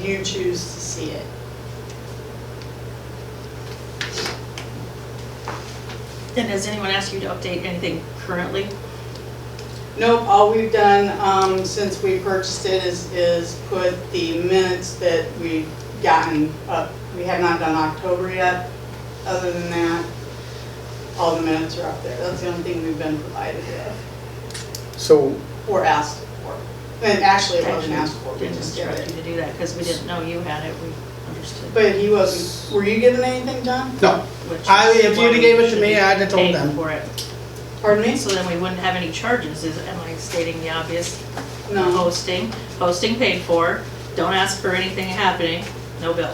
you choose to see it. And has anyone asked you to update anything currently? Nope, all we've done, um, since we purchased it is, is put the minutes that we've gotten up. We have not done October yet. Other than that, all the minutes are up there. That's the only thing we've been provided with So, or asked for. And actually, it wasn't Actually, asked for, we Didn't just did instruct it. you to do that because we didn't know you had it, we understood. But he wasn't, were you given anything, John? no, which I- is if why you'd we gave it to should me, be I'd have told paying them. For it. Pardon me? So then we wouldn't have any charges, is, am I stating the obvious? No. Hosting, hosting paid for, don't ask for anything happening, no bill.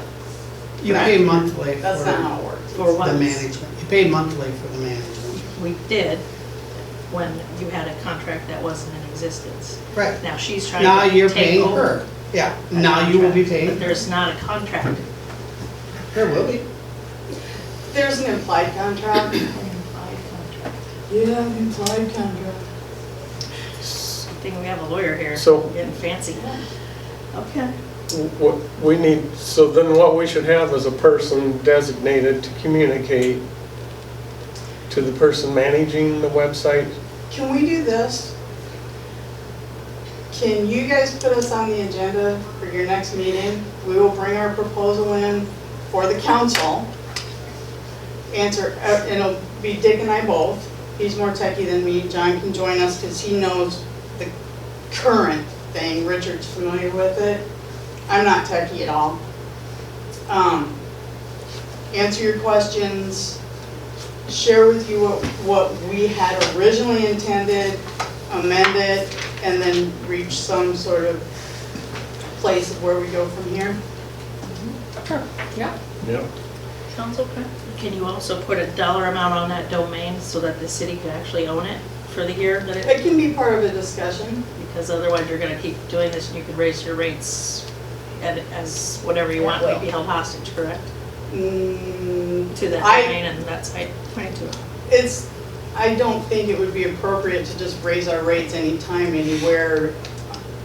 you pay monthly for That's not the how it works. For what? management. You pay monthly for the management. We did when you had a contract that wasn't in existence. Right. Now she's trying to Now you're take paying over her. Yeah, that now you will be contract, paying But her. there's not a contract. There will be. There's an implied contract. Yeah, an implied contract. I think we have a lawyer here. So- Getting fancy. Okay. What we need, so then what we should have is a person designated to communicate to the person managing the website. Can we do this? Can you guys put us on the agenda for your next meeting? We will bring our proposal in for the council. Answer, uh, and it'll be Dick and I both. He's more techie than me. John can join us because he knows the current thing. Richard's familiar with it. I'm not techie at all. Um, Answer your questions share with you what, what we had originally intended, amend it, and then reach some sort of place of where we go from here. Yep. Sounds okay. Can you also put a dollar amount on that domain so that the city could actually own it for the year that it? It can be part of a discussion. Because otherwise you're gonna keep doing this and you could raise your rates at, as whatever you want, we'd be held hostage, correct? Mm, To that I- domain and that's, I, twenty-two. It's, I don't think it would be appropriate to just raise our rates anytime, anywhere,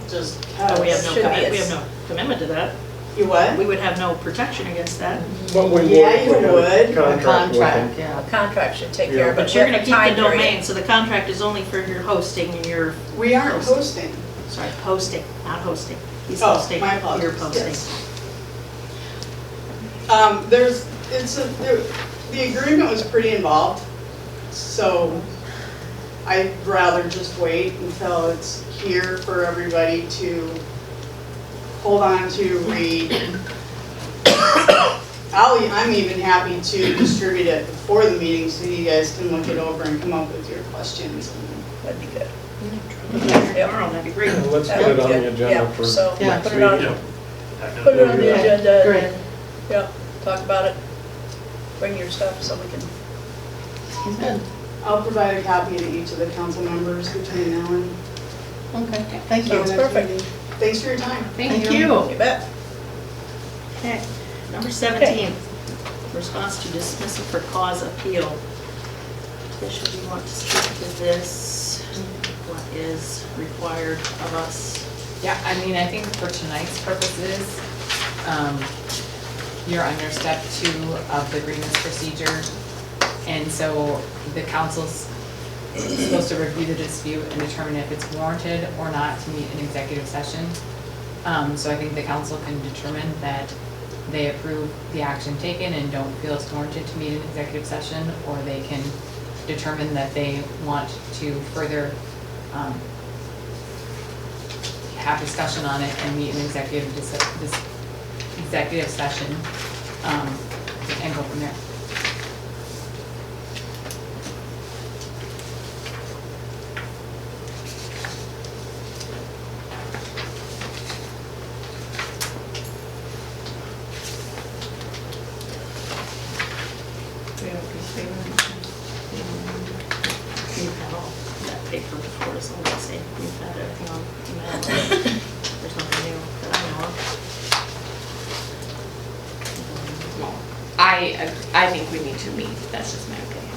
just But because. Oh, we have no, Should be, commi- we have it's- no commitment to that. You what? We would have no protection against that. But we would. Yeah, you we would. Contract with them. yeah. Contract should take Yeah. care of it. But you're gonna with keep time the period. domain, so the contract is only for your hosting and your, We aren't hosting. sorry, hosting, not hosting. He's Oh, hosting, my you're apologies. posting. Yes. Um, there's, it's a, there- the agreement was pretty involved, so I'd rather just wait until it's here for everybody to hold on to, read. I'll, I'm even happy to distribute it before the meeting so you guys can look it over and come up with your questions. That'd be good. Yep. Tomorrow, that'd be great. Yeah, Let's That put it would be on good. the agenda Yeah, for next so, Yeah. put it on. meeting. Put it on the Yeah. agenda Great. and, yeah, talk about it. Bring your stuff so we can, I'll provide a copy to each of the council members between now and. Okay, thank the Sounds next perfect. meeting. Thanks for your time. Thank you. you bet. Okay, number 17, response to dismissal for cause appeal. Bishop, you want to speak to this? What is required of us? Yeah, I mean, I think for tonight's purposes, um, you're under step two of the grievance procedure. And so the council's supposed to review the dispute and determine if it's warranted or not to meet an executive session. Um, so I think the council can determine that they approve the action taken and don't feel it's warranted to meet an executive session, or they can determine that they want to further, um, have discussion on it and meet an executive, dis- dis- executive session, um, and go from there. You've had all that paper before, so I'm gonna say you've had everything on email. There's nothing new that I know of. I, I think we need to meet, that's just my opinion.